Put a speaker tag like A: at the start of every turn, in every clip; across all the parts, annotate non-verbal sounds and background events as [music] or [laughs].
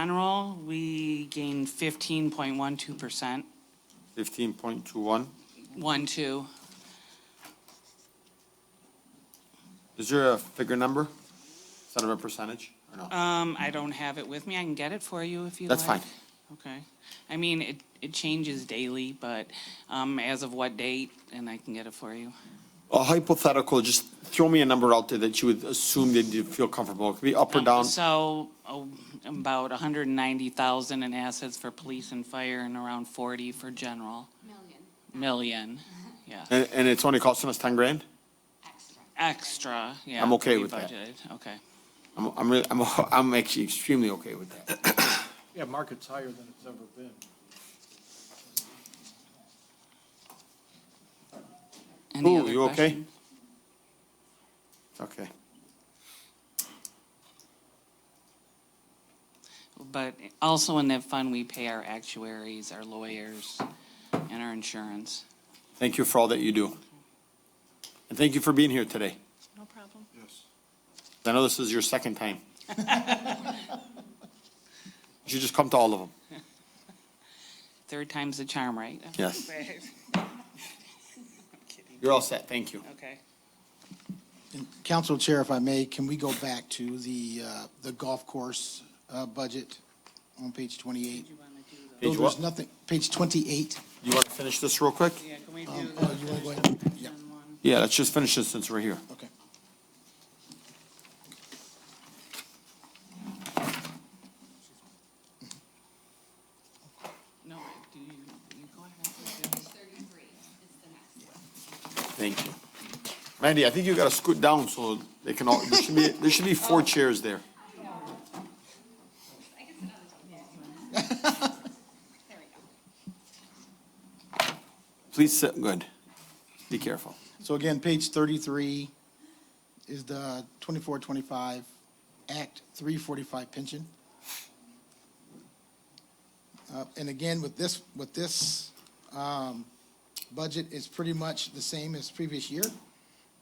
A: General, we gained fifteen point one two percent,
B: Fifteen point two one.
A: one, two.
B: Is there a figure number instead of a percentage or no?
A: Um, I don't have it with me. I can get it for you if you like.
B: That's fine.
A: Okay. I mean, it, it changes daily, but, um, as of what date, and I can get it for you.
B: A hypothetical, just throw me a number out there that you would assume that you feel comfortable. It could be up or down.
A: Um, So, oh, about hundred and ninety thousand in assets for police and fire and around forty for general,
C: million
B: [laughs]
A: million, yeah.
B: And, and it's only costing us ten grand?
C: extra.
A: Extra, yeah.
B: I'm okay
A: we
B: with that.
A: budgeted, Okay.
B: I'm, I'm really, I'm, [laughs] I'm actually extremely okay with that.
D: Yeah, market's higher than it's ever been.
A: Any
B: Ooh,
A: other
B: you okay?
A: question?
B: Okay.
A: But also in that fund, we pay our actuaries, our lawyers, and our insurance.
B: Thank you for all that you do. And thank you for being here today.
A: No problem.
D: Yes.
B: I know this is your second time. You should just come to all of them.
A: Third time's the charm, right? [laughs]
B: Yes. You're all set. Thank you.
A: Okay.
E: And Council Chair, if I may, can we go back to the, uh, the golf course uh, budget on page 28?
B: Page
E: There's
B: what?
E: nothing, page 28.
B: You want to finish this real quick?
A: Yeah, can we do
E: Um,
A: the
E: Oh, you want to go ahead? Yeah,
A: one?
B: Yeah, let's just finish this since we're here.
E: okay.
A: No, do you, you go ahead.
C: Page thirty-three is the next one.
B: Thank you. Mandy, I think you gotta scoot down so they can all, there should be, there should be four chairs there. Please sit, good. Be careful.
E: So again, page 33 is the 2425 Act 345 pension. Uh, And again, with this, with this um, budget, it's pretty much the same as previous year.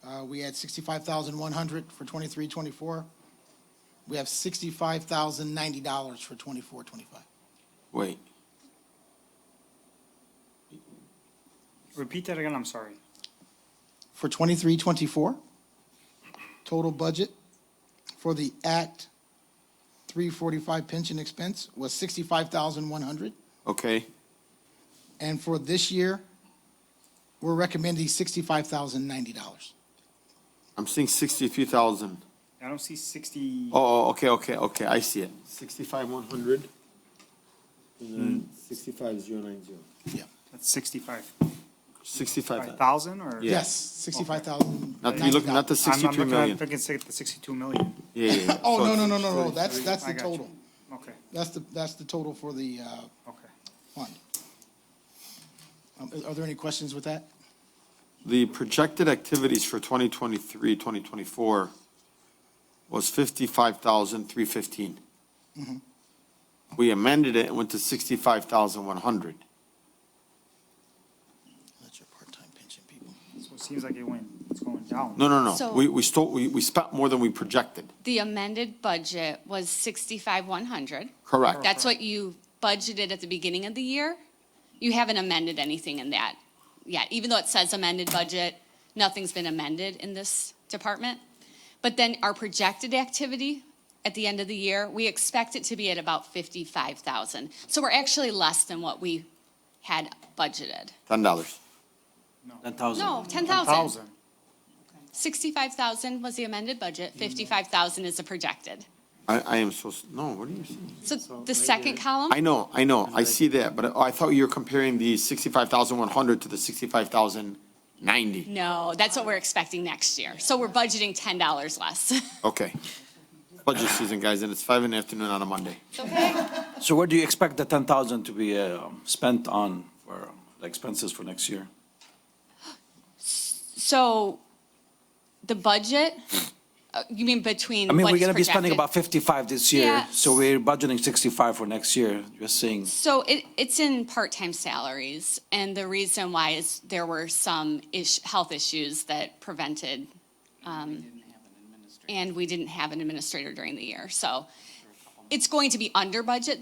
E: Uh, We had 65,100 for 23, 24. We have $65,090 for 24, 25.
B: Wait,
F: Repeat that again, I'm sorry.
E: for 23, 24. Total budget for the Act 345 pension expense was 65,100.
B: okay,
E: And for this year, we're recommending $65,090.
B: I'm seeing sixty-three thousand.
F: I don't see sixty,
B: Oh, oh, okay, okay, okay, I see it. Sixty-five, one hundred. And then sixty-five, zero, nine, zero.
F: that's sixty-five,
B: Sixty-five,
F: five thousand or?
B: Yeah.
E: Yes, 65,000.
B: not, you look, not the
F: I'm-
B: sixty-three
F: I'm looking, I'm
B: million.
F: thinking six- the sixty-two million,
B: Yeah, yeah, yeah.
E: Oh,
B: So
E: no, no,
B: it's-
E: no, no, no, that's, that's
F: I
E: the
F: got you.
E: total.
F: okay,
E: That's the, that's the total for the uh,
F: okay.
E: fund. Um, Are there any questions with that?
B: The projected activities for 2023, 2024 was 55,315. We amended it and went to 65,100.
E: That's your part-time pension people.
F: So it seems like it went, it's going down.
B: No, no, no.
C: So-
B: We, we stole, we, we spent more than we projected.
C: The amended budget was sixty-five, one hundred.
B: Correct.
C: That's what you budgeted at the beginning of the year. You haven't amended anything in that yet, even though it says amended budget, nothing's been amended in this department. But then our projected activity at the end of the year, we expect it to be at about fifty-five thousand. So we're actually less than what we had budgeted.
B: $10.
C: No, ten thousand.
F: Thousand,
C: 65,000 was the amended budget,
G: Mm-hmm.
C: 55,000 is the projected.
B: I, I am so, s- no, what are you saying?
C: So the second column,
B: I know, I know, I see that, but I I thought you were comparing the 65,100 to the 65,090.
C: no, that's what we're expecting next year. So we're budgeting $10 less. [laughs]
B: Okay. Budget season, guys, and it's five in the afternoon on a Monday.
G: So what do you expect the ten thousand to be uh, spent on for the expenses for next year?
C: So the budget, uh, you mean between
G: I mean,
C: what
G: we're
C: is
G: gonna be spending
C: projected?
G: about fifty-five this year,
C: Yeah.
G: so we're budgeting sixty-five for next year, just saying.
C: So it, it's in part-time salaries, and the reason why is there were some ish, health issues that prevented, um, and we didn't have an administrator during the year, so it's going to be under budget